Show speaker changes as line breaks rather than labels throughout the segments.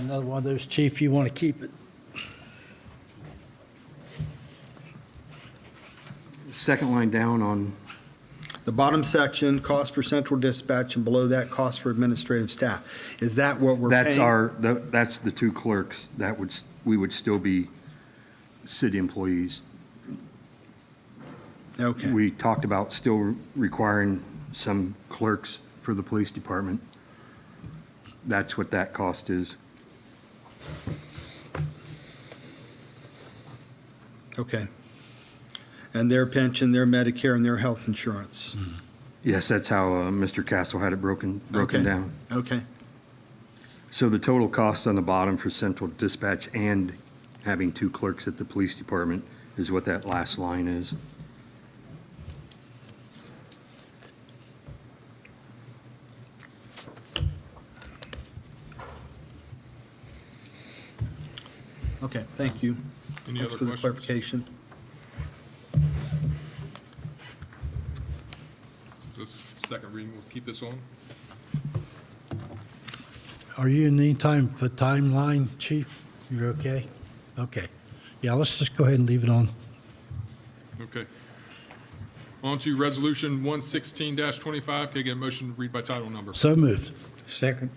Another one of those, chief, you want to keep it.
Second line down on,
The bottom section, cost for central dispatch, and below that, cost for administrative staff. Is that what we're paying?
that's our, tha- that's the two clerks. That would, s- we would still be city employees.
Okay,
We talked about still requiring some clerks for the police department. That's what that cost is.
okay. And their pension, their Medicare, and their health insurance.
Mm-hmm. Yes, that's how uh, Mr. Castle had it broken, broken
Okay.
down.
Okay,
So the total cost on the bottom for central dispatch and having two clerks at the police department is what that last line is.
okay, thank you.
Any
Thanks
other
for the
questions?
clarification.
Is this second reading, we'll keep this on?
Are you in any time for timeline, chief? You're okay? Okay. Yeah, let's just go ahead and leave it on.
Okay. On to Resolution 116-25. Can I get a motion to read by title number?
So moved.
Second.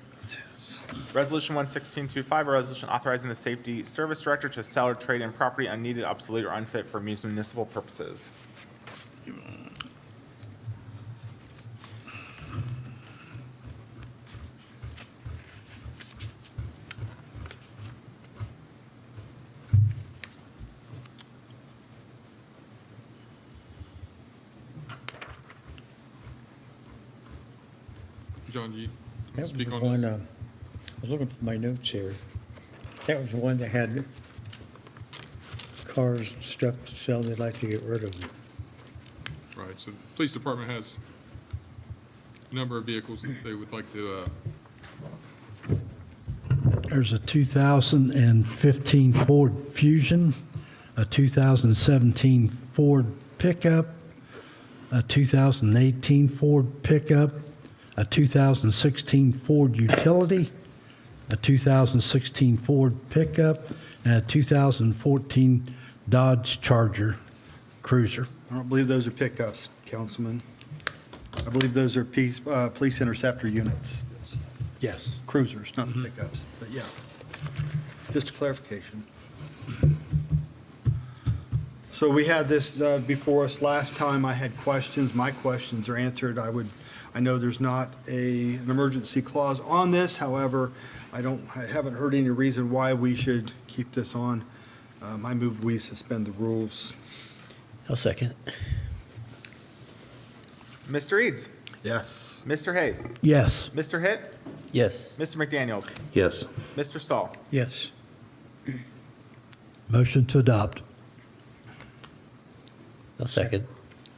Resolution 11625, a resolution authorizing the safety service director to sell or trade in property unneeded, obsolete, or unfit for municipal purposes.
John, you
That was the
speak on
one,
this?
uh, I was looking for my notes here. That was the one that had cars and stuff to sell, they'd like to get rid of them.
Right, so the police department has a number of vehicles that they would like to, uh,
There's a 2015 Ford Fusion, a 2017 Ford pickup, a 2018 Ford pickup, a 2016 Ford utility, a 2016 Ford pickup, and a 2014 Dodge Charger Cruiser.
I don't believe those are pickups, Councilman. I believe those are peace, uh, police interceptor units,
Yes.
cruisers, not the pickups, but yeah. Just a clarification. So we had this uh, before us last time. I had questions. My questions are answered. I would, I know there's not a, an emergency clause on this. However, I don't, I haven't heard any reason why we should keep this on. Um, I move we suspend the rules.
I'll second.
Mr. Eads,
Yes.
Mr. Hayes,
Yes.
Mr. Hitt,
Yes.
Mr. McDaniels,
Yes.
Mr. Stahl.
Yes.
Motion to adopt.
I'll second.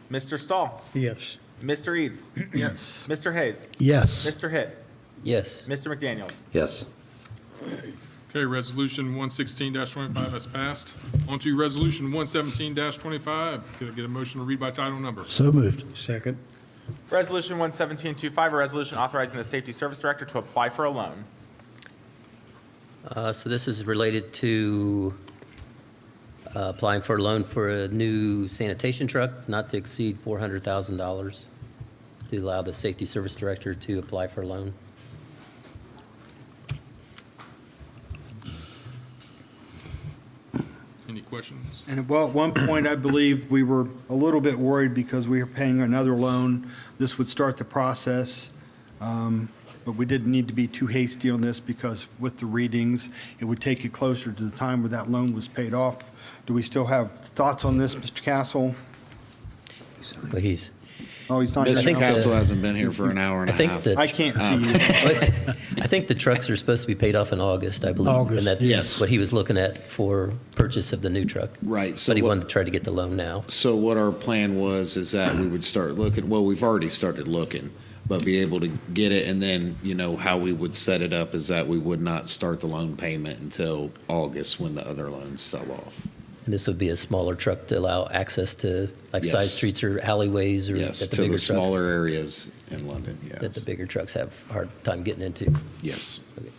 Mr. Stahl,
Yes.
Mr. Eads,
Yes.
Mr. Hayes,
Yes.
Mr. Hitt,
Yes.
Mr. McDaniels.
Yes.
okay, Resolution 116-25 has passed. On to Resolution 117-25. Can I get a motion to read by title number?
So moved.
Second.
Resolution 11725, a resolution authorizing the safety service director to apply for a loan.
Uh, So this is related to uh, applying for a loan for a new sanitation truck, not to exceed $400,000, to allow the safety service director to apply for a loan.
Any questions?
And well, at one point, I believe we were a little bit worried because we were paying another loan. This would start the process. Um, But we didn't need to be too hasty on this because with the readings, it would take you closer to the time where that loan was paid off. Do we still have thoughts on this, Mr. Castle?
But he's,
Oh, he's not. here
think
now.
Mr. Castle
the-
hasn't been here for an hour and
I
a
think
half.
the,
I can't see you.
Well, it's- I think the trucks are supposed to be paid off in August, I believe.
August,
And
yes.
that's what he was looking at for purchase of the new truck.
Right, so
But he
what-
wanted to try to get the loan now.
So what our plan was is that we would start looking, well, we've already started looking, but be able to get it and then, you know, how we would set it up is that we would not start the loan payment until August when the other loans fell off.
And this would be a smaller truck to allow access to like side
Yes.
streets or alleyways or
Yes,
that the
to
bigger
the
trucks,
smaller areas in London,
that
yes.
the bigger trucks have hard time getting into.
Yes.
Okay.